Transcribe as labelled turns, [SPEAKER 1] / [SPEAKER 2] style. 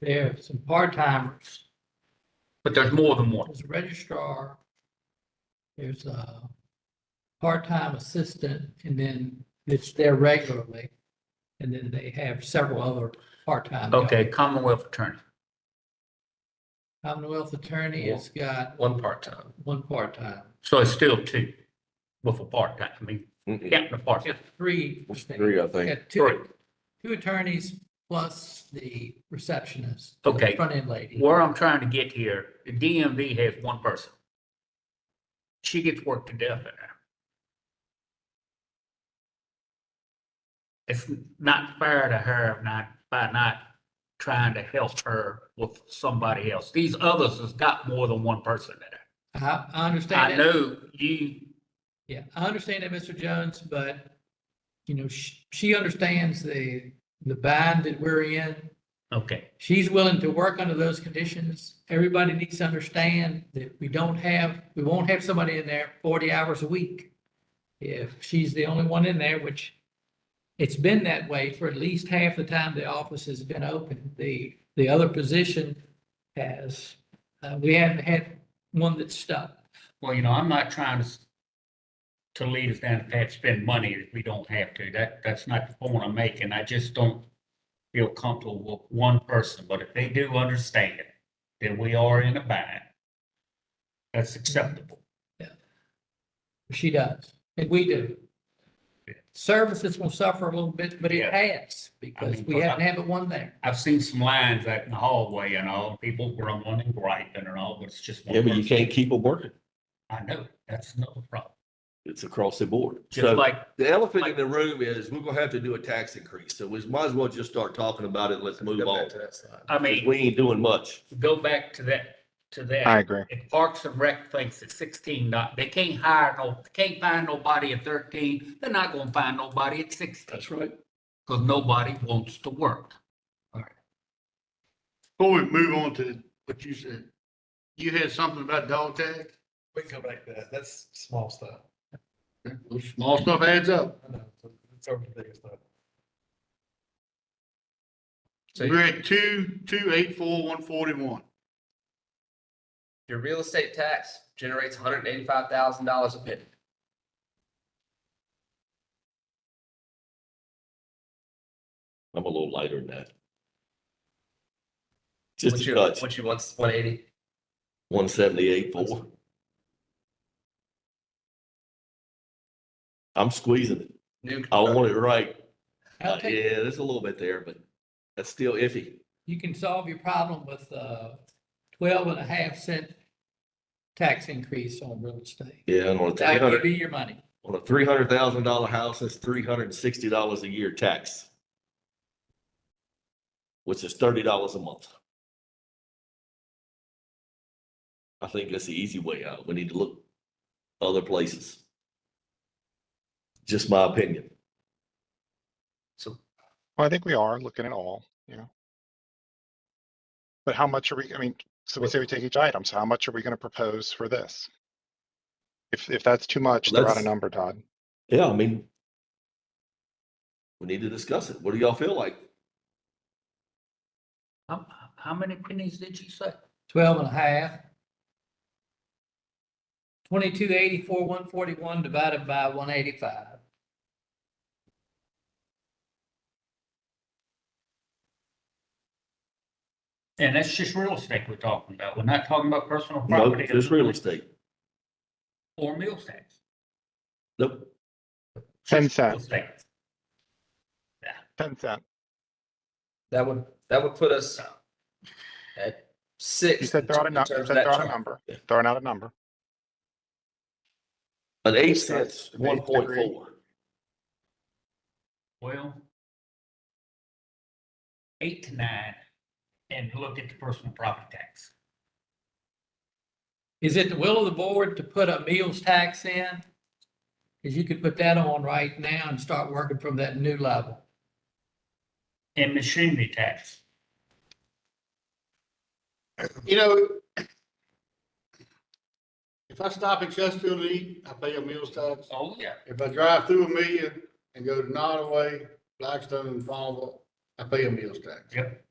[SPEAKER 1] there are some part-timers,
[SPEAKER 2] But there's more than one.
[SPEAKER 1] there's a registrar, there's a part-time assistant, and then it's there regularly. And then they have several other part-time. jobs.
[SPEAKER 2] Okay, Commonwealth Attorney,
[SPEAKER 1] Commonwealth attorney has got
[SPEAKER 2] one part-time.
[SPEAKER 1] one part-time,
[SPEAKER 2] So it's still two with a part-time, I mean,
[SPEAKER 3] Mm-mm.
[SPEAKER 2] counting the part-time.
[SPEAKER 1] three.
[SPEAKER 3] Three, I think.
[SPEAKER 1] Got
[SPEAKER 2] Three.
[SPEAKER 1] two, two attorneys plus the receptionist. the
[SPEAKER 2] Okay.
[SPEAKER 1] Front-end lady.
[SPEAKER 2] Where I'm trying to get here, the DMV has one person. She gets worked to death in there. It's not fair to her not, by not trying to help her with somebody else. These others has got more than one person in there.
[SPEAKER 1] I, I understand.
[SPEAKER 2] I
[SPEAKER 1] that.
[SPEAKER 2] know you,
[SPEAKER 1] Yeah, I understand that, Mr. Jones, but, you know, she, she understands the, the bind that we're in.
[SPEAKER 2] okay,
[SPEAKER 1] She's willing to work under those conditions. Everybody needs to understand that we don't have, we won't have somebody in there forty hours a week. If she's the only one in there, which it's been that way for at least half the time the office has been open. The, the other position has, uh, we haven't had one that's stuck.
[SPEAKER 2] well, you know, I'm not trying to s- to lead us down the path, spend money if we don't have to. That, that's not the point I'm making. I just don't feel comfortable with one person, but if they do understand that we are in a bind, that's acceptable.
[SPEAKER 1] She does, and we do.
[SPEAKER 2] Yeah.
[SPEAKER 1] Services will suffer a little bit, but it
[SPEAKER 2] Yeah.
[SPEAKER 1] has, because
[SPEAKER 2] mean,
[SPEAKER 1] we
[SPEAKER 2] but I-
[SPEAKER 1] haven't had but one there.
[SPEAKER 2] I've seen some lines out in the hallway and all, people grumbling and griping and all, but it's just one
[SPEAKER 3] Yeah, but you
[SPEAKER 2] person.
[SPEAKER 3] can't keep them working.
[SPEAKER 2] I know, that's another problem.
[SPEAKER 3] It's across the board.
[SPEAKER 2] Just
[SPEAKER 3] So
[SPEAKER 2] like,
[SPEAKER 4] The elephant in the room is we're gonna have to do a tax increase, so we might as well just start talking about it. Let's move on.
[SPEAKER 2] I mean.
[SPEAKER 4] 'Cause We ain't doing much.
[SPEAKER 2] go back to that, to that.
[SPEAKER 5] I agree.
[SPEAKER 2] If Parks and Rec thinks it's sixteen, not, they can't hire no, can't find nobody at thirteen, they're not gonna find nobody at sixteen,
[SPEAKER 4] That's right.
[SPEAKER 2] cause nobody wants to work.
[SPEAKER 6] Before we move on to what you said, you had something about dog tags?
[SPEAKER 7] We can come back to that. That's small stuff.
[SPEAKER 6] Those Small stuff adds up.
[SPEAKER 7] I know. It's over the big stuff.
[SPEAKER 6] We're at two, two, eight, four, one forty-one.
[SPEAKER 8] Your real estate tax generates hundred and eighty-five thousand dollars a penny.
[SPEAKER 3] I'm a little lighter than that.
[SPEAKER 8] What
[SPEAKER 3] Just a
[SPEAKER 8] you,
[SPEAKER 3] touch,
[SPEAKER 8] what you want, one eighty?
[SPEAKER 3] one seventy-eight, four. I'm squeezing it.
[SPEAKER 8] New.
[SPEAKER 3] I want it right.
[SPEAKER 1] I'll
[SPEAKER 3] Uh,
[SPEAKER 1] take-
[SPEAKER 3] Yeah, there's a little bit there, but that's still iffy.
[SPEAKER 1] You can solve your problem with uh, twelve and a half cent tax increase on real estate.
[SPEAKER 3] Yeah, and on a three
[SPEAKER 1] That would
[SPEAKER 3] hundred,
[SPEAKER 1] be your money.
[SPEAKER 3] on a three hundred thousand dollar house, that's three hundred and sixty dollars a year tax. Which is thirty dollars a month. I think that's the easy way out. We need to look other places. Just my opinion.
[SPEAKER 5] Well, I think we are looking at all, you know. But how much are we, I mean, so we say we take each item, so how much are we gonna propose for this? If, if that's too much, they're out
[SPEAKER 3] Let's-
[SPEAKER 5] of number, Todd.
[SPEAKER 3] Yeah, I mean. We need to discuss it. What do y'all feel like?
[SPEAKER 2] How, how many pennies did you say?
[SPEAKER 1] Twelve and a half. Twenty-two eighty-four, one forty-one divided by one eighty-five.
[SPEAKER 2] And that's just real estate we're talking about, we're not talking about personal
[SPEAKER 3] No,
[SPEAKER 2] property
[SPEAKER 3] there's real estate.
[SPEAKER 2] or meal tax.
[SPEAKER 3] Nope.
[SPEAKER 5] Ten
[SPEAKER 2] Just real
[SPEAKER 5] cents,
[SPEAKER 2] estate.
[SPEAKER 5] ten cent.
[SPEAKER 8] That would, that would put us at six.
[SPEAKER 5] You said
[SPEAKER 8] in
[SPEAKER 5] they're out of,
[SPEAKER 8] terms
[SPEAKER 5] nu-
[SPEAKER 8] of
[SPEAKER 5] you said
[SPEAKER 8] that
[SPEAKER 5] they're out
[SPEAKER 8] chart.
[SPEAKER 5] of number, throwing out a number.
[SPEAKER 3] An eight cents,
[SPEAKER 5] An eight
[SPEAKER 3] one point four.
[SPEAKER 2] Well, eight to nine, and look at the personal property tax.
[SPEAKER 1] Is it the will of the board to put a meals tax in? Because you could put that on right now and start working from that new level.
[SPEAKER 2] And machinery tax,
[SPEAKER 6] You know, if I stop in Chesterfield to eat, I pay a meals tax.
[SPEAKER 2] oh, yeah.
[SPEAKER 6] If I drive through Amelia and go to Nottaway, Blackstone, and Farmville, I pay a meals tax.
[SPEAKER 2] Yep.